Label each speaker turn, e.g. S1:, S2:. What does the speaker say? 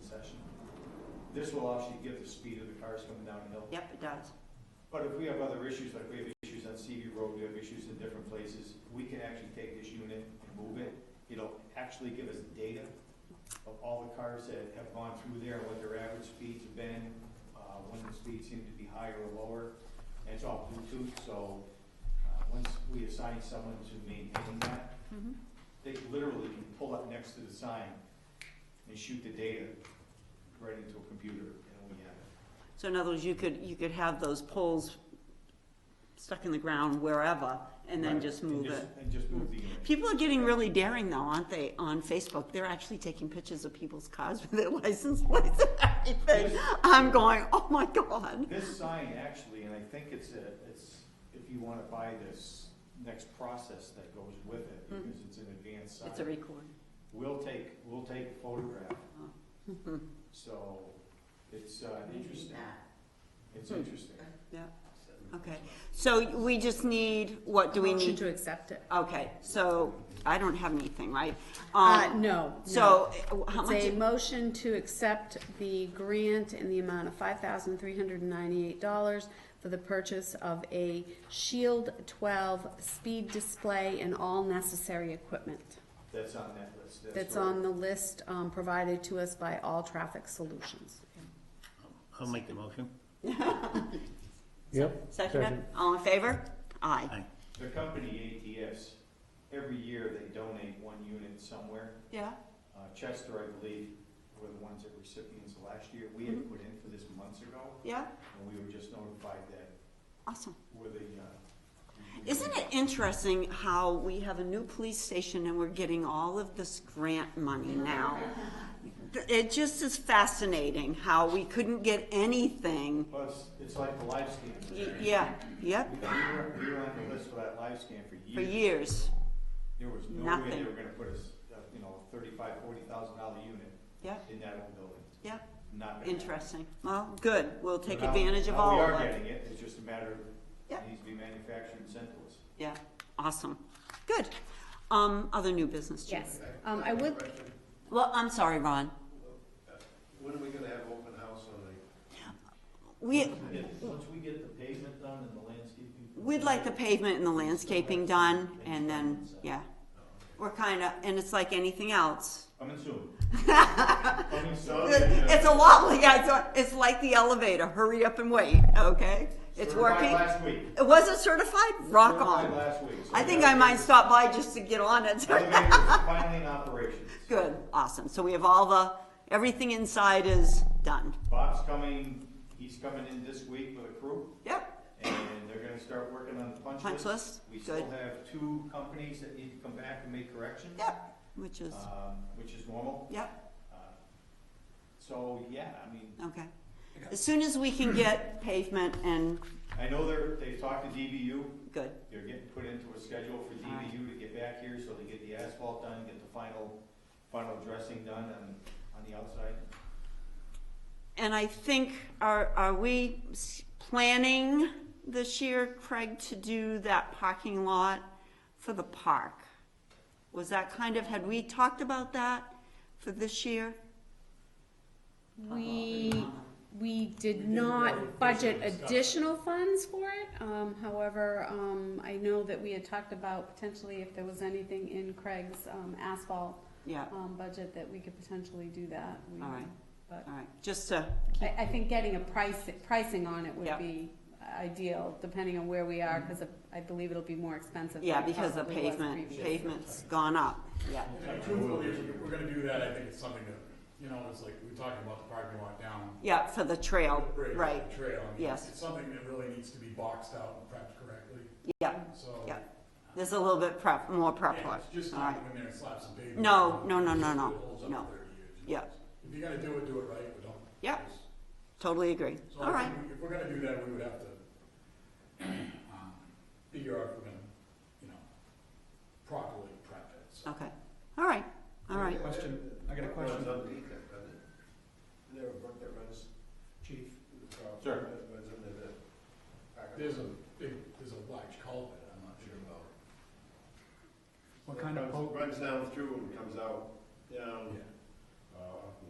S1: session. This will obviously give the speed of the cars coming down the hill.
S2: Yep, it does.
S1: But if we have other issues, like we have issues on CV Road, we have issues in different places, we can actually take this unit and move it. It'll actually give us data of all the cars that have gone through there, what their average speeds have been, uh, when the speeds seem to be higher or lower. And it's all Bluetooth, so, uh, once we assign someone to maintain that, they literally can pull up next to the sign and shoot the data right into a computer, and we have it.
S2: So in other words, you could, you could have those poles stuck in the ground wherever and then
S1: Right,
S2: just move
S1: just-
S2: it.
S1: And just move the unit.
S2: People are getting really daring though, aren't they, on Facebook? They're actually taking pictures of people's cars with their license plates and everything. I'm going, oh my God.
S1: This sign actually, and I think it's a, it's, if you wanna buy this next process that goes with it,
S2: Mhm.
S1: because it's an advanced
S2: It's a
S1: sign,
S2: record.
S1: we'll take, we'll take a photograph.
S2: Mhm.
S1: So it's, uh, interesting, it's
S2: Hmm.
S1: interesting.
S2: Yeah, okay. So we just need, what do we
S3: Motion
S2: need?
S3: to accept it.
S2: Okay, so I don't have anything, right?
S3: Uh,
S2: Um,
S3: no.
S2: So uh, how
S3: no.
S2: much?
S3: It's a motion to accept the grant in the amount of five thousand three hundred and ninety-eight dollars for the purchase of a Shield twelve speed display and all necessary equipment.
S1: That's on that list.
S3: That's
S1: what-
S3: on the list, um, provided to us by All Traffic Solutions.
S4: I'll make the motion.
S5: Yep.
S2: Second it? All in favor? Aye.
S4: Aye.
S1: The company ATS, every year they donate one unit somewhere.
S2: Yeah,
S1: Uh, Chester, I believe, were the ones that were recipients last year. We
S2: Mm-hmm.
S1: had put in for this months ago,
S2: yeah,
S1: and we were just notified that
S2: awesome.
S1: we're the, uh. we-
S2: Isn't it interesting how we have a new police station and we're getting all of this grant money now? It just is fascinating how we couldn't get anything.
S1: Well, it's, it's like the live scan.
S2: Y- Yeah, yep,
S1: We were, we were on the list for that live scan for
S2: for
S1: years.
S2: years,
S1: There was no way they
S2: nothing.
S1: were gonna put us, uh, you know, thirty-five, forty thousand dollar unit
S2: yep,
S1: in that old building.
S2: yep,
S1: Not gonna happen.
S2: interesting. Well, good, we'll take
S1: So now-
S2: advantage of
S1: now
S2: all
S1: We
S2: of
S1: are
S2: it.
S1: getting it, it's just a matter of,
S2: Yep.
S1: it needs to be manufactured and sent to us.
S2: Yeah, awesome, good. Um, other new business, Chief?
S3: Yes, um, I would,
S2: Well, I'm sorry, Ron.
S6: When are we gonna have open house on the,
S2: We,
S1: Once we get- Once we get the pavement done and the landscaping.
S2: We'd like the pavement and the landscaping done, and then, yeah. We're kinda, and it's like anything else.
S1: Coming soon. Coming soon.
S2: It's a lot, like I thought- it's like the elevator, hurry up and wait, okay? It's
S1: Certified
S2: working.
S1: Last week.
S2: It wasn't certified? Rock
S1: Certified
S2: on.
S1: Last week. so
S2: I think
S1: we
S2: I
S1: have-
S2: might stop by just to get on it.
S1: Elevator is finally in operations.
S2: Good, awesome. So we have all the, everything inside is done.
S1: Bob's coming, he's coming in this week with a crew,
S2: Yep,
S1: and they're gonna start working on the punch list.
S2: Punch list,
S1: We still
S2: good.
S1: have two companies that need to come back and make corrections.
S2: yep, which is,
S1: Um, which is normal.
S2: yep,
S1: Uh, So, yeah, I mean,
S2: okay. As soon as we can get pavement and,
S1: I know they're, they've talked to DBU,
S2: good,
S1: They're getting put into a schedule for
S2: All right.
S1: DVU to get back here, so they get the asphalt done, get the final, final dressing done on, on the outside.
S2: And I think, are, are we s- planning this year, Craig, to do that parking lot for the park? Was that kind of, had we talked about that for this year? Oh,
S3: We, we did not budget additional funds for it, um, however, um, I know that we had talked about potentially if there was anything in Craig's, um, asphalt,
S2: Yeah, all
S3: um, budget that we could potentially do that. We-
S2: Alright.
S3: But
S2: right, just to,
S3: I, I think getting a price, pricing on it
S2: Yeah. Mm-hmm.
S3: would be ideal, depending on where we are, cause I believe it'll be more expensive. than
S2: yeah,
S3: it
S2: because the
S3: probably was
S2: pavement,
S3: previously.
S2: pavement's gone up, yeah.
S7: And truthfully, if we're gonna do that, I think it's something that, you know, it's like, we were talking about the parking lot down.
S2: Yeah, for the trail,
S7: the bridge,
S2: right,
S7: the Trail, I mean,
S2: Yes.
S7: it's something that really needs to be boxed out and prepped correctly,
S2: yeah,
S7: so.
S2: yeah. There's a little bit prep, more prep
S7: Yeah,
S2: work,
S7: it's just
S2: all
S7: not
S2: right,
S7: going in there and slap some pavement.
S2: No, no, no, no, no,
S7: It holds up
S2: no.
S7: for 30 years, you know.
S2: yeah,
S7: If you're gonna do it, do it right, but don't.
S2: Yeah. totally agree,
S7: So
S2: all
S7: I
S2: right,
S7: think we- If we're gonna do that, we would have to, um, figure out if we're gonna, you know, properly prep it, so.
S2: okay, all right, all right.
S6: Question,
S5: I got a question.
S6: runs underneath that, doesn't it? Isn't there a brook that runs, chief? uh,
S1: Sure.
S6: that Runs under the. parking
S7: There's
S6: lot?
S7: a big, there's a large culvert, I'm not sure about.
S5: What kind
S6: That
S5: of
S6: runs-
S5: boat?
S6: Runs down through and comes out, down,
S7: Yeah.
S6: uh, off